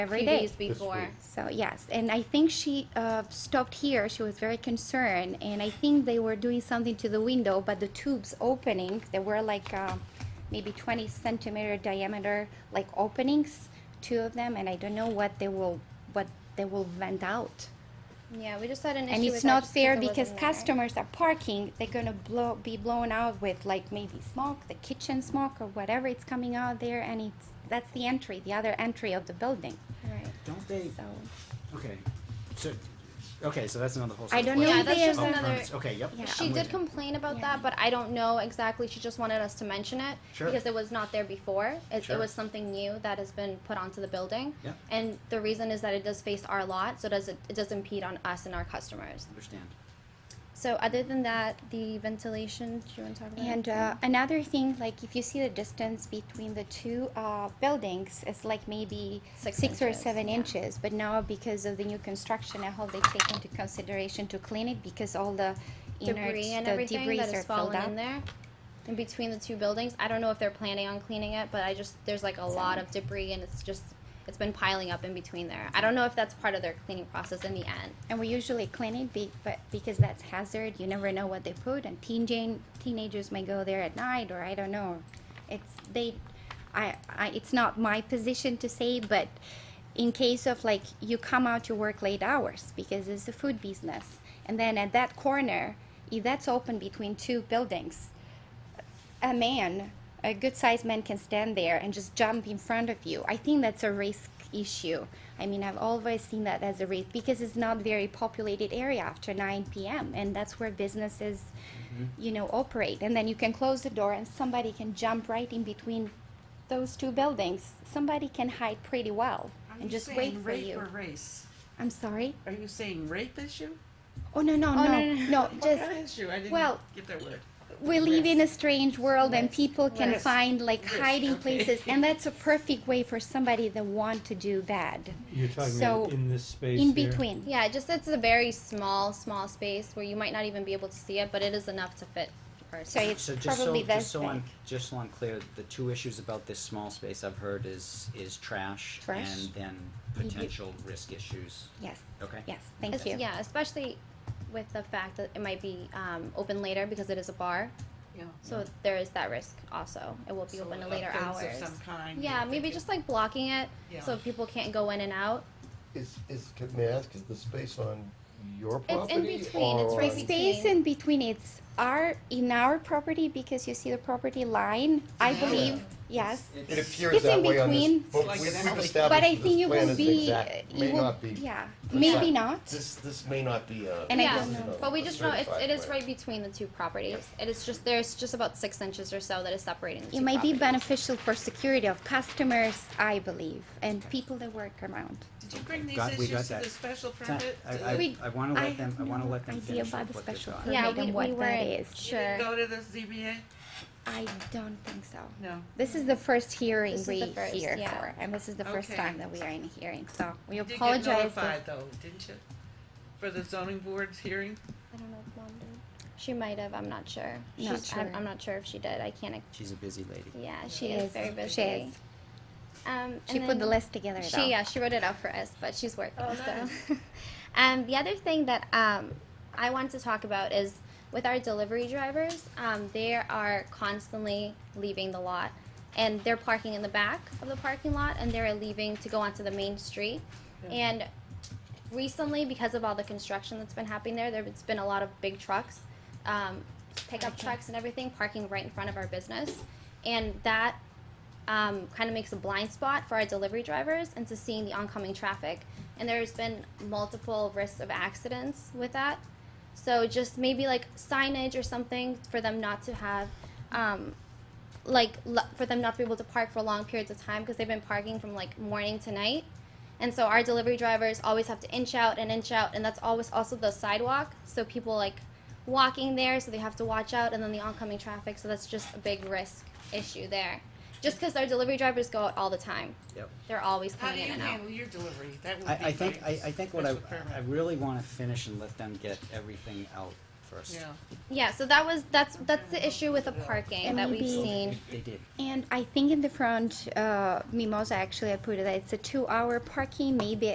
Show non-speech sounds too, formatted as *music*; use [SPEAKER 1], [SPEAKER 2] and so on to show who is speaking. [SPEAKER 1] every
[SPEAKER 2] few
[SPEAKER 1] day.
[SPEAKER 2] days before.
[SPEAKER 3] week.
[SPEAKER 1] So yes, and I think she uh, stopped here. She was very concerned, and I think they were doing something to the window, but the tubes opening they were like uh, maybe 20 centimeter diameter, like openings, two of them, and I don't know what they will what they will vent out.
[SPEAKER 2] Yeah, we just had an issue.
[SPEAKER 1] And
[SPEAKER 2] with
[SPEAKER 1] it's
[SPEAKER 2] that
[SPEAKER 1] not
[SPEAKER 2] just
[SPEAKER 1] fair
[SPEAKER 2] it
[SPEAKER 1] because
[SPEAKER 2] wasn't there.
[SPEAKER 1] customers are parking, they're gonna blow, be blown out with like maybe smoke, the kitchen smoke or whatever it's coming out there and it's, that's the entry, the other entry of the building,
[SPEAKER 2] Right.
[SPEAKER 3] Don't they?
[SPEAKER 1] so.
[SPEAKER 3] Okay. So, okay, so that's another whole.
[SPEAKER 1] I don't
[SPEAKER 3] separate
[SPEAKER 1] know
[SPEAKER 2] Yeah,
[SPEAKER 1] if
[SPEAKER 2] that's
[SPEAKER 1] they
[SPEAKER 2] just
[SPEAKER 3] Oh,
[SPEAKER 1] ever,
[SPEAKER 2] another-
[SPEAKER 3] permits. Okay, yep.
[SPEAKER 1] Yeah.
[SPEAKER 2] She
[SPEAKER 3] I'm
[SPEAKER 2] did
[SPEAKER 3] with you.
[SPEAKER 2] complain about
[SPEAKER 1] Yeah.
[SPEAKER 2] that, but I don't know exactly. She just wanted us to mention it
[SPEAKER 3] Sure.
[SPEAKER 2] because it was not there before. It,
[SPEAKER 3] Sure.
[SPEAKER 2] it was something new that has been put onto the building.
[SPEAKER 3] Yeah.
[SPEAKER 2] And the reason is that it does face our lot, so does it, it does impede on us and our customers.
[SPEAKER 3] Understand.
[SPEAKER 2] So other than that, the ventilation. Do you want to talk about?
[SPEAKER 1] and,
[SPEAKER 2] it?
[SPEAKER 1] uh, another thing, like if you see the distance between the two, uh, buildings, it's like maybe
[SPEAKER 2] Six
[SPEAKER 1] six or
[SPEAKER 2] inches,
[SPEAKER 1] seven
[SPEAKER 2] yeah.
[SPEAKER 1] inches, but now because of the new construction, I hope they take into consideration to clean it because all the innards,
[SPEAKER 2] debris and
[SPEAKER 1] the
[SPEAKER 2] everything
[SPEAKER 1] debris are filled up.
[SPEAKER 2] that has fallen in there. In between the two buildings, I don't know if they're planning on cleaning it, but I just there's like a lot of debris and it's just it's been piling up in between there. I don't know if that's part of their cleaning process in the end.
[SPEAKER 1] And we usually clean it be, but because that's hazard, you never know what they put, and teen jan- teenagers may go there at night, or I don't know. It's they, I, I, it's not my position to say, but in case of like you come out to work late hours because it's a food business, and then at that corner, if that's open between two buildings, a man, a good sized man can stand there and just jump in front of you. I think that's a risk issue. I mean, I've always seen that as a risk because it's not very populated area after 9 p.m. and that's where businesses, you know, operate. And then you can close the door and somebody can jump right in between those two buildings. Somebody can hide pretty well
[SPEAKER 4] Are
[SPEAKER 1] and
[SPEAKER 4] you
[SPEAKER 1] just
[SPEAKER 4] saying
[SPEAKER 1] wait for
[SPEAKER 4] rape
[SPEAKER 1] you.
[SPEAKER 4] Or race?
[SPEAKER 1] I'm sorry.
[SPEAKER 4] Are you saying rape issue?
[SPEAKER 1] Oh no no
[SPEAKER 2] Oh,
[SPEAKER 1] no
[SPEAKER 2] no, no,
[SPEAKER 1] no,
[SPEAKER 4] What
[SPEAKER 1] just
[SPEAKER 4] kind of issue? I didn't
[SPEAKER 1] well,
[SPEAKER 4] get that word.
[SPEAKER 1] we live in a strange world and people can
[SPEAKER 4] Risk.
[SPEAKER 1] find like
[SPEAKER 4] Risk,
[SPEAKER 1] hiding
[SPEAKER 4] okay.
[SPEAKER 1] places and that's a perfect way for somebody that want to do bad
[SPEAKER 5] You're talking
[SPEAKER 1] So,
[SPEAKER 5] about in this space
[SPEAKER 1] in
[SPEAKER 5] here?
[SPEAKER 1] between
[SPEAKER 2] Yeah, it just it's a very small, small space where you might not even be able to see it, but it is enough to fit a person.
[SPEAKER 1] so it's
[SPEAKER 3] So just so,
[SPEAKER 1] probably that
[SPEAKER 3] just so I'm, just so I'm clear, the two issues about this small space I've heard is, is trash
[SPEAKER 1] Trash.
[SPEAKER 3] and then
[SPEAKER 1] You- you-
[SPEAKER 3] potential risk issues.
[SPEAKER 1] yes
[SPEAKER 3] Okay?
[SPEAKER 1] yes thank
[SPEAKER 2] Es-
[SPEAKER 1] you
[SPEAKER 2] Yeah, especially with the fact that it might be um, open later because it is a bar,
[SPEAKER 4] Yeah.
[SPEAKER 2] so there is that risk also. It will be
[SPEAKER 4] So
[SPEAKER 2] open to later
[SPEAKER 4] offense
[SPEAKER 2] hours.
[SPEAKER 4] Of some kind.
[SPEAKER 2] Yeah,
[SPEAKER 4] if they
[SPEAKER 2] maybe
[SPEAKER 4] could-
[SPEAKER 2] just like blocking it
[SPEAKER 4] Yeah.
[SPEAKER 2] so people can't go in and out.
[SPEAKER 6] Is, is, can- may I ask, is the space on your
[SPEAKER 2] It's in
[SPEAKER 6] property?
[SPEAKER 2] between. It's
[SPEAKER 6] or
[SPEAKER 2] right
[SPEAKER 6] on-
[SPEAKER 2] between.
[SPEAKER 1] space in between it's our in our property because you see the property line i believe yes
[SPEAKER 6] It
[SPEAKER 1] It's in
[SPEAKER 6] appears that way on this,
[SPEAKER 1] between.
[SPEAKER 6] but
[SPEAKER 4] Like
[SPEAKER 6] we-
[SPEAKER 4] an
[SPEAKER 6] we've
[SPEAKER 4] alley.
[SPEAKER 1] but i
[SPEAKER 6] established
[SPEAKER 1] think
[SPEAKER 6] this
[SPEAKER 1] it
[SPEAKER 6] plan
[SPEAKER 1] will
[SPEAKER 6] is
[SPEAKER 1] be
[SPEAKER 6] exact,
[SPEAKER 1] it
[SPEAKER 6] may
[SPEAKER 1] will-
[SPEAKER 6] not be.
[SPEAKER 1] yeah
[SPEAKER 6] precise.
[SPEAKER 1] maybe not
[SPEAKER 6] This, this may not be a.
[SPEAKER 1] And I
[SPEAKER 2] yeah,
[SPEAKER 1] don't know.
[SPEAKER 2] but we
[SPEAKER 6] a
[SPEAKER 2] just know it's,
[SPEAKER 6] Oh, certified
[SPEAKER 2] it is
[SPEAKER 6] plan.
[SPEAKER 2] right between the two properties. It is just there's just about six inches or so that is separating. The
[SPEAKER 1] it
[SPEAKER 2] two
[SPEAKER 1] might be
[SPEAKER 2] properties.
[SPEAKER 1] beneficial for security of customers i believe and people that work around
[SPEAKER 4] Did you bring these
[SPEAKER 3] Got- we got
[SPEAKER 4] issues to
[SPEAKER 3] that.
[SPEAKER 4] the special
[SPEAKER 3] Ta-
[SPEAKER 4] permit?
[SPEAKER 3] I,
[SPEAKER 4] Did
[SPEAKER 3] I,
[SPEAKER 4] you
[SPEAKER 1] We-
[SPEAKER 3] I wanna
[SPEAKER 1] I
[SPEAKER 3] let them,
[SPEAKER 1] have
[SPEAKER 3] I wanna
[SPEAKER 1] no
[SPEAKER 3] let them
[SPEAKER 1] idea
[SPEAKER 3] finish
[SPEAKER 1] about
[SPEAKER 3] with
[SPEAKER 1] the
[SPEAKER 3] what they've
[SPEAKER 1] special
[SPEAKER 3] got.
[SPEAKER 1] permit.
[SPEAKER 2] Yeah,
[SPEAKER 1] Permit
[SPEAKER 2] we,
[SPEAKER 1] and
[SPEAKER 2] we
[SPEAKER 1] what that
[SPEAKER 2] weren't
[SPEAKER 1] is.
[SPEAKER 2] sure.
[SPEAKER 4] Go to the ZBA?
[SPEAKER 1] I don't think so.
[SPEAKER 4] No.
[SPEAKER 1] This is the first hearing
[SPEAKER 2] This is
[SPEAKER 1] we
[SPEAKER 2] the first,
[SPEAKER 1] hear
[SPEAKER 2] yeah.
[SPEAKER 1] for, and this is the first
[SPEAKER 4] Okay.
[SPEAKER 1] time that we are in a hearing, so we
[SPEAKER 4] You did get
[SPEAKER 1] apologize.
[SPEAKER 4] notified though, didn't you? For the zoning board's hearing?
[SPEAKER 2] I don't know if mom did. She might have. I'm not sure.
[SPEAKER 1] Not
[SPEAKER 2] She's- I'm,
[SPEAKER 1] sure.
[SPEAKER 2] I'm not sure if she did. I can't. ex-
[SPEAKER 3] She's a busy lady.
[SPEAKER 2] Yeah, she
[SPEAKER 1] She
[SPEAKER 2] is,
[SPEAKER 1] is.
[SPEAKER 2] very
[SPEAKER 1] She
[SPEAKER 2] busy.
[SPEAKER 1] is.
[SPEAKER 2] Um,
[SPEAKER 1] She
[SPEAKER 2] and
[SPEAKER 1] put the
[SPEAKER 2] then-
[SPEAKER 1] list together though.
[SPEAKER 2] She uh, yeah, she wrote it out for us, but she's working.
[SPEAKER 4] Oh,
[SPEAKER 2] so, *laughs* um, the other thing that um, I wanted to talk about is with our delivery drivers, um, they are constantly leaving the lot, and they're parking in the back of the parking lot, and they're leaving to go onto the main street, and recently because of all the construction that's been happening there, there's been a lot of big trucks, um, pickup trucks and everything parking right in front of our business, and that um, kind of makes a blind spot for our delivery drivers into seeing the oncoming traffic. And there's been multiple risks of accidents with that. So just maybe like signage or something for them not to have, um, like l- for them not to be able to park for long periods of time because they've been parking from like morning to night. And so our delivery drivers always have to inch out and inch out, and that's always also the sidewalk. So people like walking there, so they have to watch out, and then the oncoming traffic. So that's just a big risk issue there. Just because our delivery drivers go out all the time,
[SPEAKER 3] Yep.
[SPEAKER 2] they're always
[SPEAKER 4] How do
[SPEAKER 2] coming in
[SPEAKER 4] you
[SPEAKER 2] and out.
[SPEAKER 4] handle your delivery? That would
[SPEAKER 3] I,
[SPEAKER 4] be
[SPEAKER 3] I think,
[SPEAKER 4] my
[SPEAKER 3] I, I think what I,
[SPEAKER 4] special permit.
[SPEAKER 3] I really wanna finish and let them get everything out first.
[SPEAKER 4] yeah.
[SPEAKER 2] Yeah, so that was that's that's the issue with the parking
[SPEAKER 1] And
[SPEAKER 2] that we've
[SPEAKER 1] maybe-
[SPEAKER 2] seen.
[SPEAKER 3] They did.
[SPEAKER 1] And I think in the front, uh, Mimosa actually I put it. It's a two-hour parking, maybe